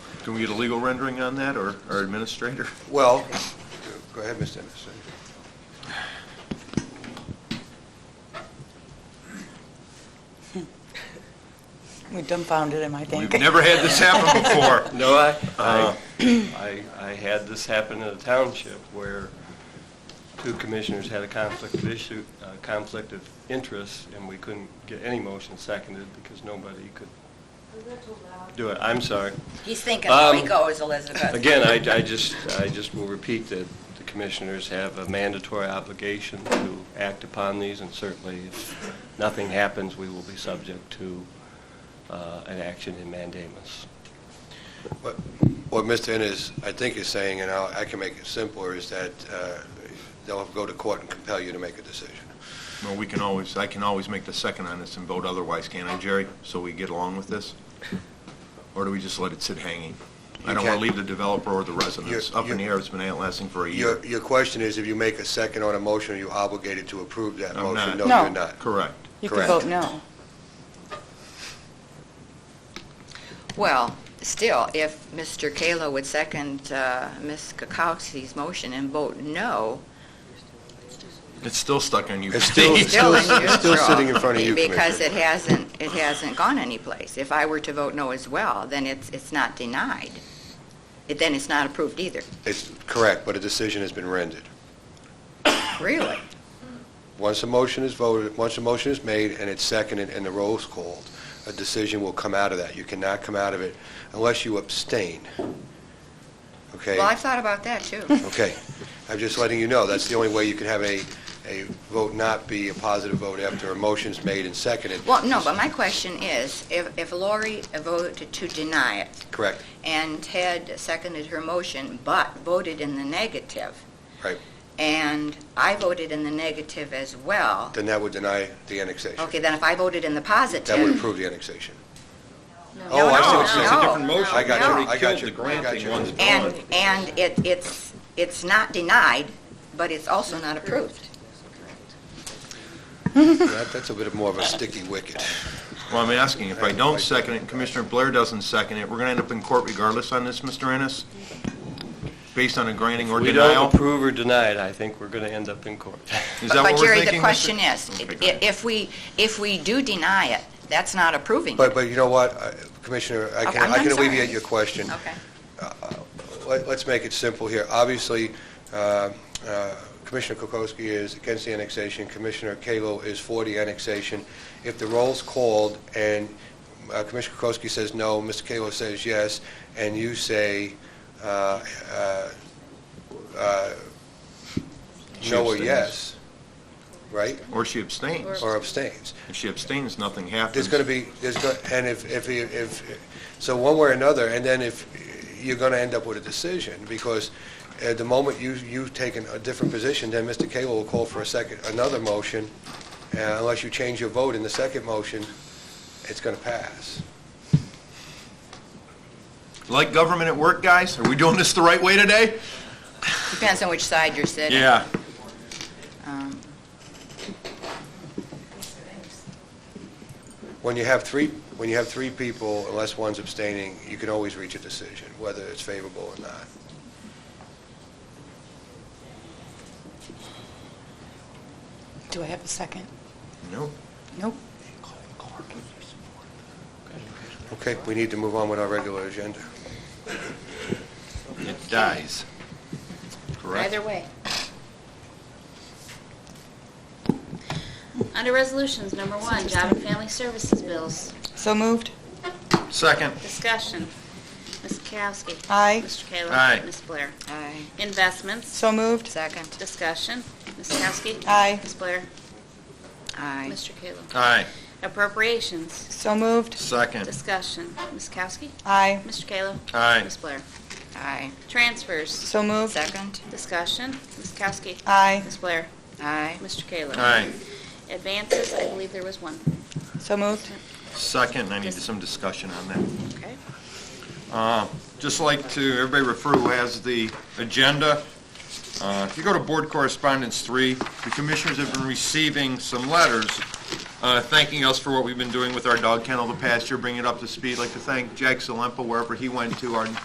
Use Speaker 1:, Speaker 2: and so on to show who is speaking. Speaker 1: Can we get a legal rendering on that, or our administrator?
Speaker 2: Well, go ahead, Mr. Anderson.
Speaker 3: We dumbfounded him, I think.
Speaker 1: We've never had this happen before.
Speaker 4: No, I, I, I I had this happen in a township where two commissioners had a conflict of issue, uh conflict of interest, and we couldn't get any motion seconded because nobody could do it. I'm sorry.
Speaker 5: He's thinking
Speaker 4: Um,
Speaker 5: Rico is Elizabeth.
Speaker 4: Again, I, I just, I just will repeat that the commissioners have a mandatory obligation to act upon these, and certainly if nothing happens, we will be subject to uh, an action in mandamus.
Speaker 2: What what Mr. Innes, I think, is saying, and I'll- I can make it simpler, is that uh, they'll go to court and compel you to make a decision.
Speaker 1: Well, we can always, I can always make the second on this and vote otherwise, can't I, Jerry? So we get along with this? Or do we just let it sit hanging? I don't want
Speaker 2: You
Speaker 1: to
Speaker 2: can't-
Speaker 1: leave the developer or the residents
Speaker 2: You're-
Speaker 1: up in the
Speaker 2: you're-
Speaker 1: air. It's been outlasting for a year.
Speaker 2: Your your question is, if you make a second on a motion, are you obligated to approve that
Speaker 1: I'm not.
Speaker 2: motion? No,
Speaker 3: No.
Speaker 2: you're not.
Speaker 1: Correct.
Speaker 3: You could
Speaker 2: Correct.
Speaker 3: vote no.
Speaker 5: Well, still, if Mr. Kalo would second uh, Ms. Kokowski's motion and vote no,
Speaker 1: It's still stuck on you.
Speaker 2: It's still-
Speaker 1: Steve.
Speaker 2: it's
Speaker 5: still
Speaker 2: It's
Speaker 5: unusual.
Speaker 2: still sitting in front of you,
Speaker 5: Because it
Speaker 2: Commissioner.
Speaker 5: hasn't, it hasn't gone anyplace. If I were to vote no as well, then it's, it's not denied. It- Then it's not approved either,
Speaker 2: It's correct, but a decision has been rendered.
Speaker 5: really.
Speaker 2: Once a motion is voted, once a motion is made and it's seconded and the roll's called, a decision will come out of that. You cannot come out of it unless you abstain. Okay?
Speaker 5: Well, I've thought about that, too.
Speaker 2: Okay. I'm just letting you know, that's the only way you can have a, a vote not be a positive vote after a motion's made and seconded.
Speaker 5: Well, no, but my question is, if if Lori voted to deny it,
Speaker 2: Correct.
Speaker 5: and Ted seconded her motion, but voted in the negative.
Speaker 2: Right.
Speaker 5: And I voted in the negative as well.
Speaker 2: Then that would deny the annexation.
Speaker 5: Okay, then if I voted in the positive.
Speaker 2: That would approve the annexation.
Speaker 5: No,
Speaker 2: Oh, I see what
Speaker 5: no,
Speaker 2: you're saying.
Speaker 5: no,
Speaker 2: I got
Speaker 5: no.
Speaker 2: you, I got you. I got you.
Speaker 5: And, and it, it's, it's not denied, but it's also not approved.
Speaker 2: That- That's a bit more of a sticky wicket.
Speaker 1: Well, I'm asking, if I don't second it, and Commissioner Blair doesn't second it, we're going to end up in court regardless on this, Mr. Ennis? Based on a granting or
Speaker 4: We don't
Speaker 1: denial?
Speaker 4: approve or deny it, I think we're going to end up in court.
Speaker 1: Is that what
Speaker 5: But
Speaker 1: we're
Speaker 5: Jerry, the
Speaker 1: thinking, Mr.?
Speaker 5: question is,
Speaker 1: Okay, go
Speaker 5: i-
Speaker 1: ahead.
Speaker 5: if we, if we do deny it, that's not approving.
Speaker 2: But, but you know what, I- Commissioner, I
Speaker 5: Okay,
Speaker 2: can,
Speaker 5: I'm-
Speaker 2: I can
Speaker 5: I'm sorry.
Speaker 2: alleviate your question.
Speaker 5: Okay.
Speaker 2: Let- Let's make it simple here. Obviously, uh, uh, Commissioner Kokoski is against the annexation, Commissioner Kalo is for the annexation. If the roll's called and uh, Commissioner Kokoski says no, Mr. Kalo says yes, and you say uh, uh, uh,
Speaker 1: She
Speaker 2: no or
Speaker 1: abstains.
Speaker 2: yes, right,
Speaker 1: Or she abstains.
Speaker 2: or abstains,
Speaker 1: If she abstains, nothing happens.
Speaker 2: there's going to be, there's, go- and if, if, if, so one way or another, and then if, you're going to end up with a decision, because at the moment you, you've taken a different position, then Mr. Cagle will call for a second, another motion, uh, unless you change your vote in the second motion, it's going to pass.
Speaker 1: Like government at work, guys? Are we doing this the right way today?
Speaker 5: Depends on which side you're sitting.
Speaker 1: Yeah.
Speaker 5: Um,
Speaker 2: When you have three, when you have three people, unless one's abstaining, you can always reach a decision, whether it's favorable or not.
Speaker 3: Do I have a second?
Speaker 1: No.
Speaker 3: Nope.
Speaker 2: Okay, we need to move on with our regular agenda.
Speaker 1: It dies. Correct?
Speaker 6: Either way. Under resolutions, number one, job and family services bills.
Speaker 3: So moved?
Speaker 1: Second.
Speaker 6: Discussion. Ms. Kowski.
Speaker 3: Aye.
Speaker 6: Mr. Kayla.
Speaker 1: Aye.
Speaker 6: Ms. Blair.
Speaker 5: Aye.
Speaker 6: Investments.
Speaker 3: So moved?
Speaker 5: Second.
Speaker 6: Discussion. Ms. Kowski.
Speaker 3: Aye.
Speaker 6: Ms. Blair.
Speaker 5: Aye.
Speaker 6: Mr. Kayla.
Speaker 1: Aye.
Speaker 6: Appropriations.
Speaker 3: So moved?
Speaker 1: Second.
Speaker 6: Discussion. Ms. Kowski.
Speaker 3: Aye.
Speaker 6: Mr. Kayla.
Speaker 1: Aye.
Speaker 6: Ms. Blair.
Speaker 5: Aye.
Speaker 6: Transfers.
Speaker 3: So moved?
Speaker 5: Second.
Speaker 6: Discussion. Ms. Kowski.
Speaker 3: Aye.
Speaker 6: Ms. Blair.
Speaker 5: Aye.
Speaker 6: Mr. Kayla.
Speaker 1: Aye.
Speaker 6: Advances, I believe there was one.
Speaker 3: So moved?
Speaker 1: Second, I need some discussion on that. Uh,
Speaker 6: Okay.
Speaker 1: Just like to, everybody refer who has the agenda. Uh, If you go to Board Correspondence 3, the commissioners have been receiving some letters uh, thanking us for what we've been doing with our dog kennel the past year, bringing it up to speed. Like to thank Jack Salempa wherever he went to, our